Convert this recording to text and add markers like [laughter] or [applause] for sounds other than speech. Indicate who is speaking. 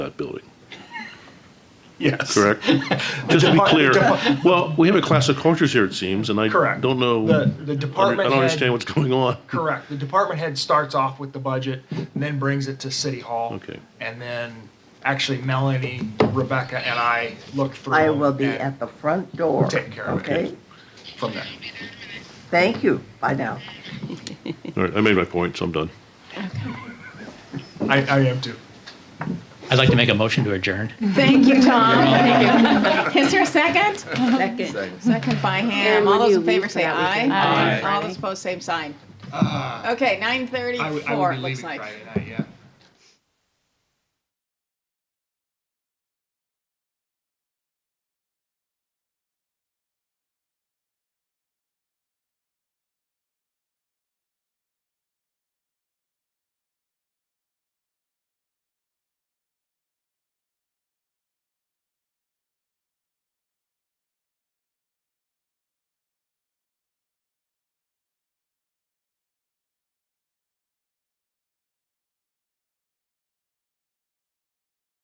Speaker 1: that building,
Speaker 2: Yes. [laughs]
Speaker 1: correct? Just to be
Speaker 2: Depart-
Speaker 1: clear,
Speaker 2: depart-
Speaker 1: well, we have a clash of cultures here, it seems, and I
Speaker 2: Correct.
Speaker 1: don't know. I
Speaker 2: The- the
Speaker 1: don't- I
Speaker 2: department
Speaker 1: don't
Speaker 2: head-
Speaker 1: understand what's going on.
Speaker 2: Correct. The department head starts off with the budget, and then brings it to City Hall.
Speaker 1: Okay.
Speaker 2: And then, actually Melanie, Rebecca, and I look through.
Speaker 3: I will be
Speaker 2: and
Speaker 3: at the front door.
Speaker 2: Take care of it.
Speaker 3: Okay?
Speaker 2: From there.
Speaker 3: Thank you. Bye now.
Speaker 1: All right, I made my point, so I'm done.
Speaker 2: I, I am too.
Speaker 4: I'd like to make a motion to adjourn.
Speaker 5: Thank you, Tom. Thank you. Is there a second?
Speaker 6: Second.
Speaker 5: Second by Ham.
Speaker 7: Aaron,
Speaker 5: All
Speaker 7: would
Speaker 5: those
Speaker 7: you
Speaker 5: in favor
Speaker 7: leave
Speaker 5: say
Speaker 7: that we
Speaker 5: aye.
Speaker 7: can- Aye.
Speaker 5: All those opposed, same sign. Okay,
Speaker 2: Ah. I would- I would
Speaker 5: 9:34,
Speaker 2: be
Speaker 5: it looks
Speaker 2: leaving
Speaker 5: like.
Speaker 2: Friday night.